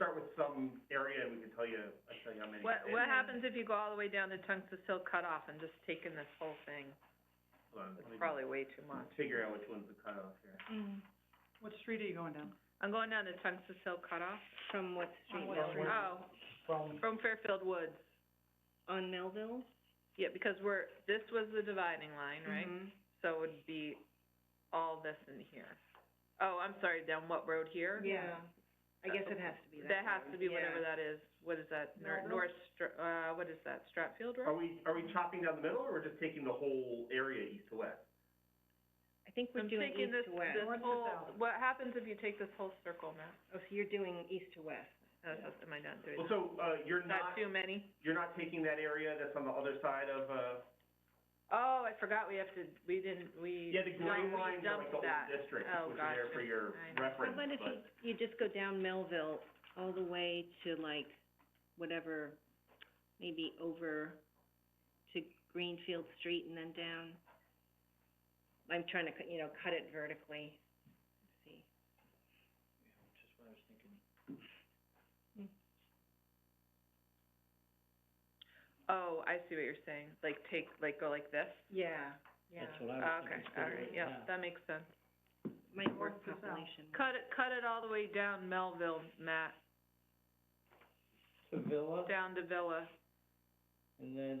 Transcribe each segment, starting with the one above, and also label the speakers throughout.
Speaker 1: start with some area, and we can tell you, I can tell you how many.
Speaker 2: What,
Speaker 1: it
Speaker 2: what
Speaker 1: is.
Speaker 2: happens if you go all the way down to Tungus Hill cutoff and just taking this whole thing?
Speaker 1: Hold on,
Speaker 2: It's
Speaker 1: let me
Speaker 2: probably way too much.
Speaker 1: Figure out which one's the cutoff here.
Speaker 3: What street are you going down?
Speaker 2: I'm going down to Tungus Hill cutoff.
Speaker 4: From what street,
Speaker 3: what
Speaker 4: Melville?
Speaker 3: street?
Speaker 2: Oh, from Fairfield Woods.
Speaker 4: On Melville?
Speaker 2: Yeah, because we're, this was the dividing line, right?
Speaker 4: Mhm.
Speaker 2: So it would be all this in here. Oh, I'm sorry, down what road here?
Speaker 4: Yeah, I guess it has to be that.
Speaker 2: That has to be
Speaker 4: road,
Speaker 2: whatever
Speaker 4: yeah.
Speaker 2: that is. What is that? Nor-
Speaker 3: Melville?
Speaker 2: North Str- uh, what is that? Stratfield
Speaker 1: Are
Speaker 4: Oh,
Speaker 2: Road?
Speaker 1: we, are we chopping down the middle, or we're just taking the whole area east to west?
Speaker 4: I think we're
Speaker 2: I'm
Speaker 4: doing
Speaker 2: thinking this,
Speaker 4: east to west.
Speaker 2: this
Speaker 3: North to
Speaker 2: whole,
Speaker 3: south.
Speaker 2: what happens if you take this whole circle, Matt?
Speaker 4: Oh, so you're doing east to west.
Speaker 2: That's, am I not doing
Speaker 1: Well,
Speaker 2: that?
Speaker 1: so, uh, you're
Speaker 2: Not
Speaker 1: not,
Speaker 2: too many?
Speaker 1: you're not taking that area that's on the other side of, uh,
Speaker 2: Oh, I forgot we have to, we didn't, we.
Speaker 1: yeah, the gray
Speaker 2: dumped- we
Speaker 1: lines are like
Speaker 2: dumped
Speaker 1: the whole
Speaker 2: that.
Speaker 1: district,
Speaker 2: Oh,
Speaker 1: which are there for
Speaker 2: gotcha.
Speaker 1: your
Speaker 2: I know.
Speaker 1: reference,
Speaker 4: How about if
Speaker 1: but-
Speaker 4: you, you just go down Melville all the way to like, whatever, maybe over to Greenfield Street and then down? I'm trying to, cut- you know, cut it vertically, Let's see.
Speaker 2: Oh, I see what you're saying, like take, like go like this?
Speaker 4: Yeah, yeah.
Speaker 1: Oh,
Speaker 2: Okay, all right, yeah, that makes sense.
Speaker 4: Might work
Speaker 3: North to south.
Speaker 4: population.
Speaker 2: Cut it, cut it all the way down Melville, Matt,
Speaker 5: To Villa,
Speaker 2: down to Villa.
Speaker 5: and then,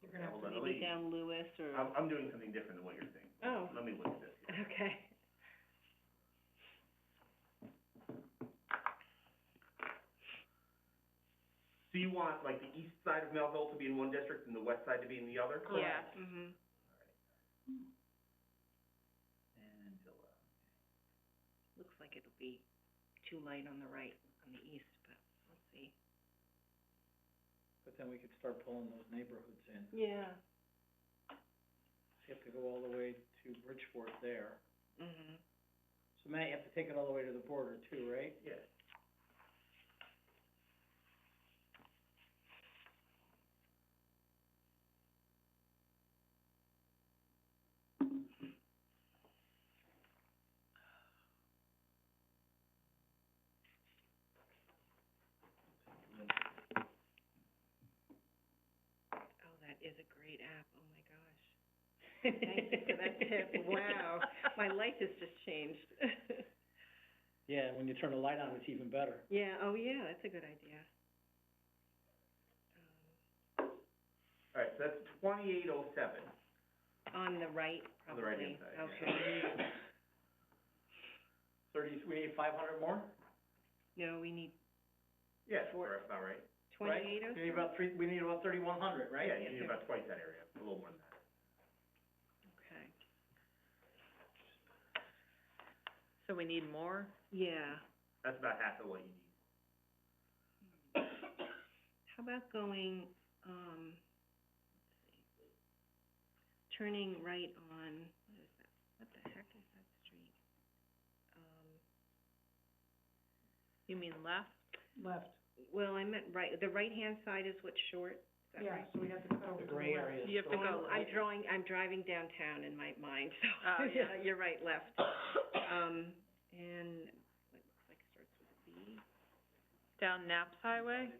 Speaker 3: You're
Speaker 1: Yeah, hold on, let me,
Speaker 4: Maybe down Lewis or,
Speaker 1: I'm, I'm doing something different than what you're saying.
Speaker 4: oh,
Speaker 1: Let me look at this.
Speaker 4: okay.
Speaker 1: So you want, like, the east side of Melville to be in one district and the west side to be in the other?
Speaker 2: Yeah,
Speaker 4: Mhm.
Speaker 1: And Villa.
Speaker 4: Looks like it'll be too light on the right, on the east, but we'll see.
Speaker 5: but then we could start pulling those neighborhoods in.
Speaker 4: Yeah.
Speaker 5: So you have to go all the way to Bridgeport there.
Speaker 4: Mhm.
Speaker 5: So Matt, you have to take it all the way to the border too, right?
Speaker 1: Yeah.
Speaker 4: Oh, that is a great app, oh my gosh. Thank you for that tip, wow, my life has just changed.
Speaker 5: Yeah, when you turn the light on, it's even better.
Speaker 4: Yeah, oh yeah, that's a good idea.
Speaker 1: All right, so that's twenty-eight oh seven.
Speaker 4: Um, On the right, probably.
Speaker 1: On the right-hand side, yeah.
Speaker 4: Okay,
Speaker 5: Thirty, we need five hundred more,
Speaker 4: no, we need
Speaker 1: Yeah,
Speaker 4: Four-
Speaker 1: that's about right.
Speaker 5: right?
Speaker 4: twenty-eight oh
Speaker 5: We need about three, we need about thirty-one hundred, right?
Speaker 1: Yeah, you need about twice that area, a little more than that.
Speaker 4: Okay,
Speaker 2: so we need more?
Speaker 4: yeah,
Speaker 1: That's about half of what you need.
Speaker 4: how about going, um, let's see, turning right on, what is that, what the heck is that street? Um,
Speaker 2: You mean left?
Speaker 3: Left,
Speaker 4: well, I meant right, the right-hand side is what's short, is that
Speaker 3: yeah,
Speaker 4: right?
Speaker 3: so we have to cut over to the
Speaker 5: The gray
Speaker 3: left.
Speaker 5: area is.
Speaker 2: Oh, You have to
Speaker 5: the-
Speaker 2: go
Speaker 4: I'm
Speaker 2: right.
Speaker 4: drawing, I'm driving downtown in my mind, so.
Speaker 2: Oh, yeah.
Speaker 4: You're right, left. Um, and what looks like it starts with a B.
Speaker 2: Down Naps Highway?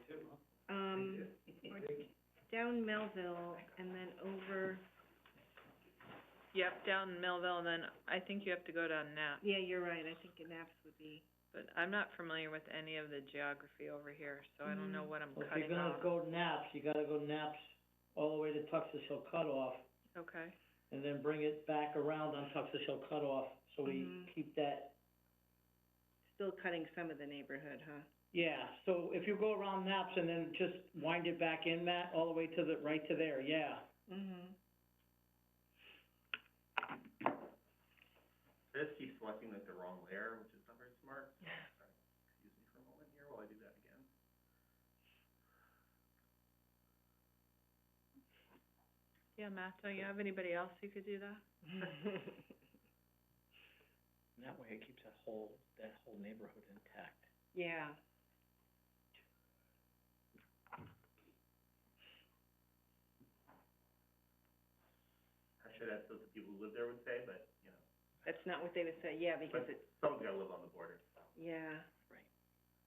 Speaker 4: Um, or down Melville and then over,
Speaker 2: Yep, down Melville, and then I think you have to go down Naps,
Speaker 4: yeah, you're right, I think Naps would be,
Speaker 2: but I'm not familiar with any of the geography over here, so I don't know
Speaker 4: Mm.
Speaker 2: what I'm
Speaker 5: Well, if you're
Speaker 2: cutting
Speaker 5: gonna
Speaker 2: off.
Speaker 5: go naps, you gotta go naps all the way to Tuxas Hill Cutoff,
Speaker 2: Okay,
Speaker 5: and then bring it back around on Tuxas Hill Cutoff, so we
Speaker 2: Mm-hmm.
Speaker 4: Mhm.
Speaker 5: keep that
Speaker 4: still cutting some of the neighborhood, huh?
Speaker 5: Yeah, so if you go around Naps and then just wind it back in, Matt, all the way to the, right to there, yeah.
Speaker 4: Mm-hmm.
Speaker 1: I just keep selecting like the wrong layer, which is not very smart. Sorry, Excuse me for a moment here while I do that again.
Speaker 2: yeah, Matt, don't you have anybody else who could do that?
Speaker 5: And that way it keeps that whole, that whole neighborhood intact.
Speaker 4: Yeah.
Speaker 1: I should ask what the people who live there would say, but, you know,
Speaker 4: That's not what they would say, yeah, because it,
Speaker 1: someone's gotta live on the border.
Speaker 4: yeah.